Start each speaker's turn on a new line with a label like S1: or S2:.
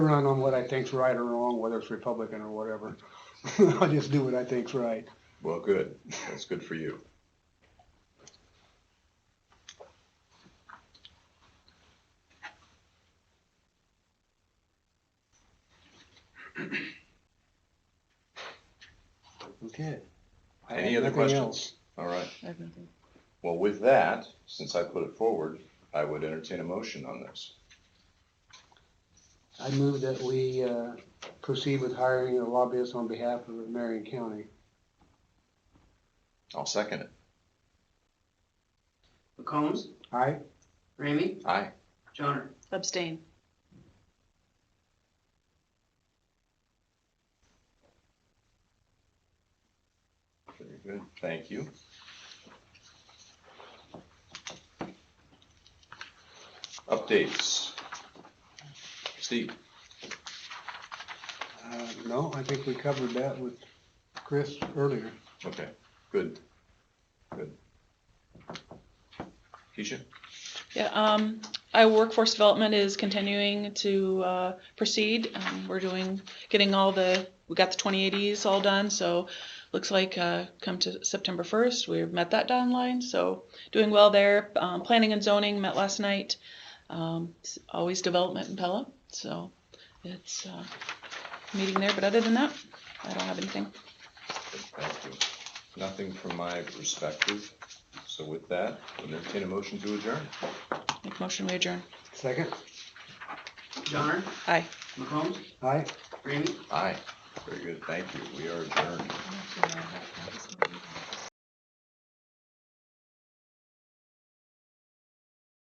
S1: run on what I think's right or wrong, whether it's Republican or whatever. I just do what I think's right.
S2: Well, good. That's good for you.
S1: Okay. I
S2: Any
S1: have
S2: other
S1: nothing
S2: questions?
S1: else.
S2: All right.
S3: Everything.
S2: Well, with that, since I put it forward, I would entertain a motion on this.
S1: I move that we uh, proceed with hiring a lobbyist on behalf of Marion County.
S2: I'll second it.
S4: McCombs,
S1: Aye?
S4: Ramey,
S2: Aye.
S4: Johnner.
S3: Abstain.
S2: Very good. Thank you. Updates. Steve,
S1: Uh, No, I think we covered that with Chris earlier.
S2: okay, good, good. Keisha?
S3: Yeah, um, our workforce development is continuing to, uh, proceed. Um, we're doing, getting all the, we got the twenty eighties all done, so looks like, uh, come to September first, we've met that deadline, so doing well there. Um, planning and zoning met last night. Um, it's always development in Pella, so it's, uh, meeting there, but other than that, I don't have anything.
S2: Thank you. Nothing from my perspective. So with that, I would entertain a motion to adjourn.
S3: Make a motion, we adjourn.
S1: Second?
S4: Johnner,
S3: Aye.
S4: McCombs,
S1: Aye?
S4: Ramey,
S2: Aye. Very good, thank you. We are adjourned.
S3: Yeah.